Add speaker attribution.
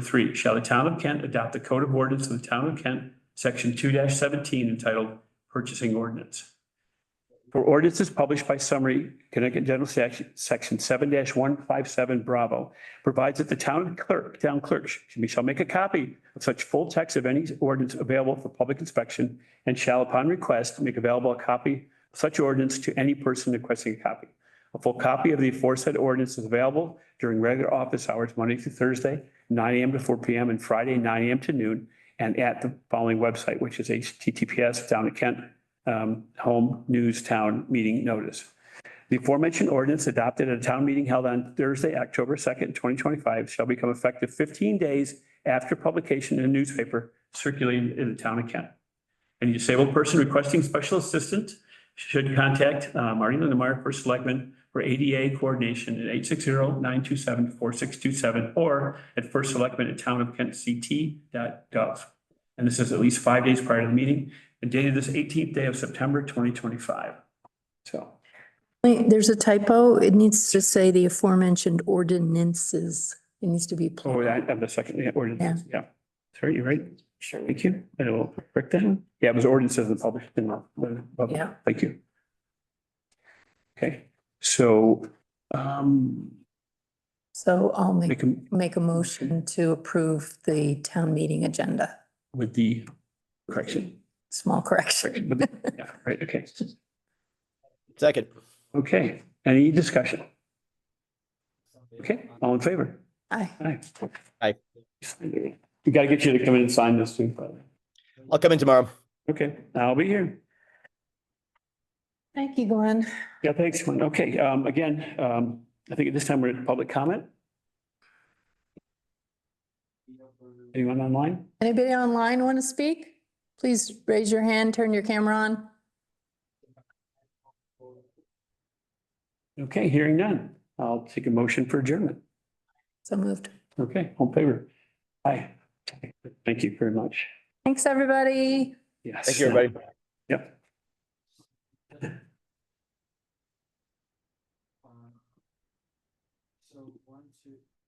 Speaker 1: Three, shall the town of Kent adopt the code of ordinance of the town of Kent, section two seventeen entitled purchasing ordinance? For ordinances published by summary, Connecticut General Statute, section seven one five seven Bravo provides that the town clerk, town clerk, shall- shall make a copy of such full text of any ordinance available for public inspection and shall upon request make available a copy of such ordinance to any person requesting a copy. A full copy of the aforesaid ordinance is available during regular office hours, Monday through Thursday, nine AM to four PM and Friday, nine AM to noon. And at the following website, which is HTTPS down at Kent, um, home news town meeting notice. The aforementioned ordinance adopted at a town meeting held on Thursday, October second, twenty twenty-five shall become effective fifteen days after publication in a newspaper circulating in the town of Kent. Any disabled person requesting special assistance should contact uh, Marty Lindemeyer, First Selectman, for ADA coordination at 860-927-4627 or at First Selectman at townofkentct.gov. And this is at least five days prior to the meeting and dated this 18th day of September 2025. So,
Speaker 2: Wait, there's a typo. It needs to say the aforementioned ordinances. It needs to be.
Speaker 1: oh, I have the second yeah, ordinance, yeah. Sorry, you're right. Sure. Thank you. I will correct that. Yeah, it was ordinances and published in the.
Speaker 2: Yeah.
Speaker 1: Thank you. Okay, so, um,
Speaker 2: So I'll
Speaker 1: they
Speaker 2: make,
Speaker 1: can,
Speaker 2: make a motion to approve the town meeting agenda.
Speaker 1: with the correction.
Speaker 2: Small correction.
Speaker 1: With the- Yeah, right, okay,
Speaker 3: Second.
Speaker 1: okay. Any discussion? Okay, all in favor?
Speaker 2: Aye.
Speaker 1: Aye.
Speaker 3: Aye.
Speaker 1: We gotta get you to come in and sign this too, but,
Speaker 3: I'll come in tomorrow.
Speaker 1: okay, I'll be here.
Speaker 2: Thank you, Glenn.
Speaker 1: Yeah, thanks, Lynn. Okay, um, again, um, I think at this time we're at public comment. Anyone online?
Speaker 2: Anybody online want to speak? Please raise your hand, turn your camera on.
Speaker 1: Okay, hearing none. I'll take a motion for adjournment.
Speaker 2: So moved.
Speaker 1: Okay, on favor. Aye. Thank you very much.
Speaker 2: Thanks, everybody.
Speaker 1: Yes.
Speaker 3: Thank you, everybody.
Speaker 1: Yep.
Speaker 4: Um, So one, two,